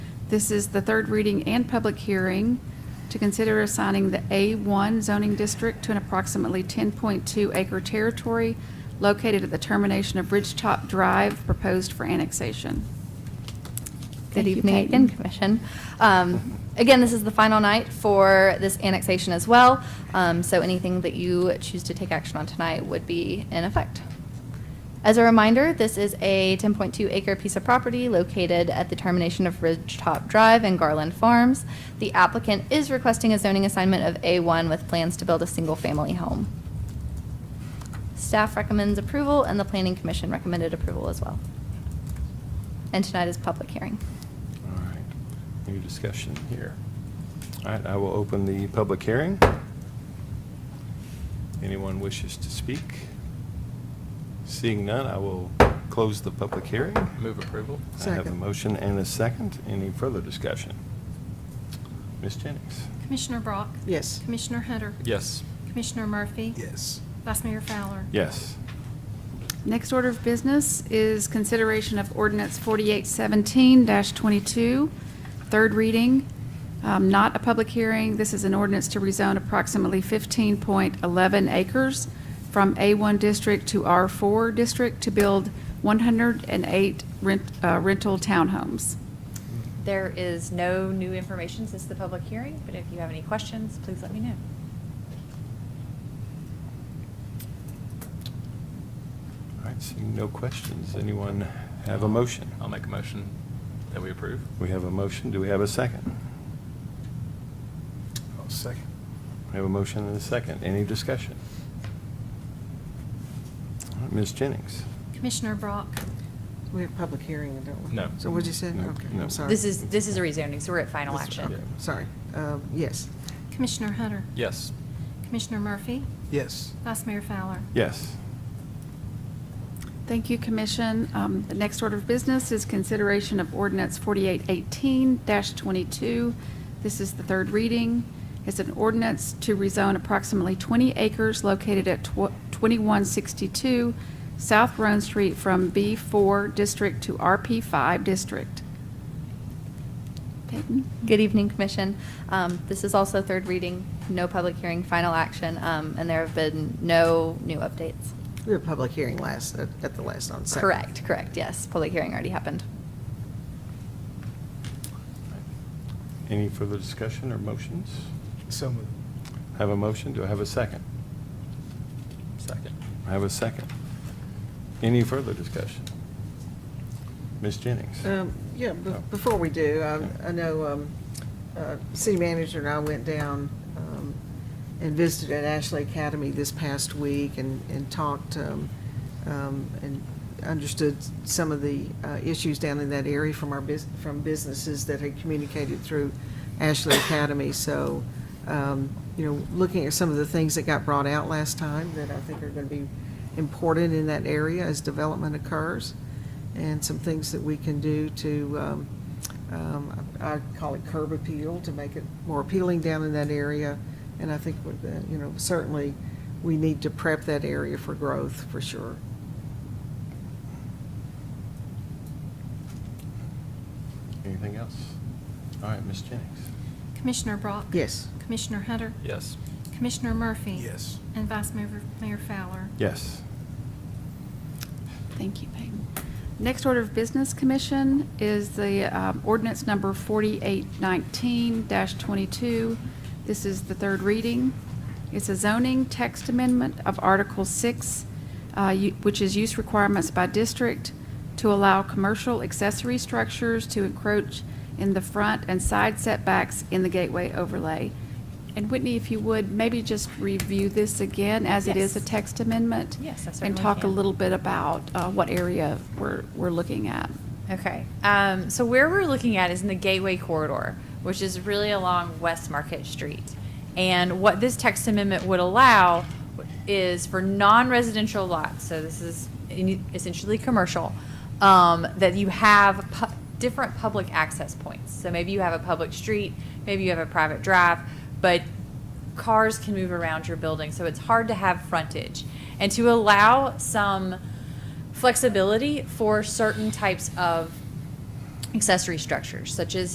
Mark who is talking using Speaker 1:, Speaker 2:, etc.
Speaker 1: This is the third reading and public hearing to consider assigning the A1 zoning district to an approximately 10.2 acre territory located at the termination of Ridgetop Drive proposed for annexation.
Speaker 2: Good
Speaker 1: Thank you,
Speaker 2: evening
Speaker 1: Peyton.
Speaker 2: again, Commission. Um, Again, this is the final night for this annexation as well, Um, so anything that you choose to take action on tonight would be in effect. As a reminder, this is a 10.2 acre piece of property located at the termination of Ridgetop Drive and Garland Farms. The applicant is requesting a zoning assignment of A1 with plans to build a single-family home. Staff recommends approval, and the Planning Commission recommended approval as well. And tonight is public hearing.
Speaker 3: All right, any discussion here? All right, I will open the public hearing. Anyone wishes to speak? Seeing none, I will close the public hearing.
Speaker 4: Move approval?
Speaker 3: I have a
Speaker 1: Second.
Speaker 3: motion and a second. Any further discussion? Ms. Jennings?
Speaker 5: Commissioner Brock?
Speaker 6: Yes.
Speaker 5: Commissioner Hunter?
Speaker 4: Yes.
Speaker 5: Commissioner Murphy?
Speaker 4: Yes.
Speaker 5: Vice Mayor Fowler?
Speaker 3: Yes.
Speaker 1: Next order of business is consideration of ordinance 4817-22, third reading, um, not a public hearing. This is an ordinance to rezone approximately 15.11 acres from A1 district to R4 district to build 108 rent- uh, rental townhomes.
Speaker 7: There is no new information since the public hearing, but if you have any questions, please let me know.
Speaker 3: All right, seeing no questions. Anyone have a motion?
Speaker 4: I'll make a motion that we approve.
Speaker 3: We have a motion. Do we have a second?
Speaker 4: I'll second.
Speaker 3: We have a motion and a second. Any discussion? All right, Ms. Jennings?
Speaker 5: Commissioner Brock?
Speaker 6: We have public hearing, don't we?
Speaker 4: No.
Speaker 6: So what'd you say?
Speaker 3: No,
Speaker 6: Okay,
Speaker 3: no.
Speaker 6: I'm sorry.
Speaker 7: This is, this is a rezoning, so we're at final
Speaker 6: This- okay,
Speaker 7: action.
Speaker 6: Sorry. Um, Yes.
Speaker 5: Commissioner Hunter?
Speaker 4: Yes.
Speaker 5: Commissioner Murphy?
Speaker 4: Yes.
Speaker 5: Vice Mayor Fowler?
Speaker 3: Yes.
Speaker 1: Thank you, Commission. Um, The next order of business is consideration of ordinance 4818-22. This is the third reading. It's an ordinance to rezone approximately 20 acres located at tw- 2162 South Roan Street from B4 District to RP5 District. Peyton?
Speaker 2: Good evening, Commission. Um, This is also third reading, no public hearing, final action, um, and there have been no new updates.
Speaker 6: We had a public hearing last, at at the last on Saturday.
Speaker 2: Correct, correct, yes. Public hearing already happened.
Speaker 3: Any further discussion or motions?
Speaker 4: So moved.
Speaker 3: Have a motion, do I have a second?
Speaker 4: Second.
Speaker 3: I have a second. Any further discussion? Ms. Jennings?
Speaker 6: Um, Yeah, be-
Speaker 3: Oh.
Speaker 6: before we do, I-
Speaker 3: Yeah.
Speaker 6: I know um, uh, City Manager and I went down um, and visited at Ashley Academy this past week and and talked um, um, and understood some of the uh, issues down in that area from our, bus- from businesses that had communicated through Ashley Academy. So, um, you know, looking at some of the things that got brought out last time that I think are going to be important in that area as development occurs and some things that we can do to, um, um, I I call it curb appeal, to make it more appealing down in that area. And I think, with the- you know, certainly, we need to prep that area for growth, for sure.
Speaker 3: Anything else? All right, Ms. Jennings?
Speaker 5: Commissioner Brock?
Speaker 6: Yes.
Speaker 5: Commissioner Hunter?
Speaker 4: Yes.
Speaker 5: Commissioner Murphy?
Speaker 4: Yes.
Speaker 5: And Vice Mayor Mayor Fowler?
Speaker 3: Yes.
Speaker 1: Thank you, Peyton. Next order of business, Commission, is the um, ordinance number 4819-22. This is the third reading. It's a zoning text amendment of Article 6, uh, u- which is use requirements by district to allow commercial accessory structures to encroach in the front and side setbacks in the gateway overlay. And Whitney, if you would, maybe just review this again as it is a
Speaker 7: Yes.
Speaker 1: text amendment?
Speaker 7: Yes, I
Speaker 1: And
Speaker 7: certainly
Speaker 1: talk a
Speaker 7: can.
Speaker 1: little bit about uh, what area we're, we're looking at.
Speaker 7: Okay, um, so where we're looking at is in the Gateway Corridor, which is really along West Market Street. And what this text amendment would allow is for non-residential lots, so this is in- essentially commercial, um, that you have pu- different public access points. So maybe you have a public street, maybe you have a private drive, but cars can move around your building, so it's hard to have frontage. And to allow some flexibility for certain types of accessory structures, such as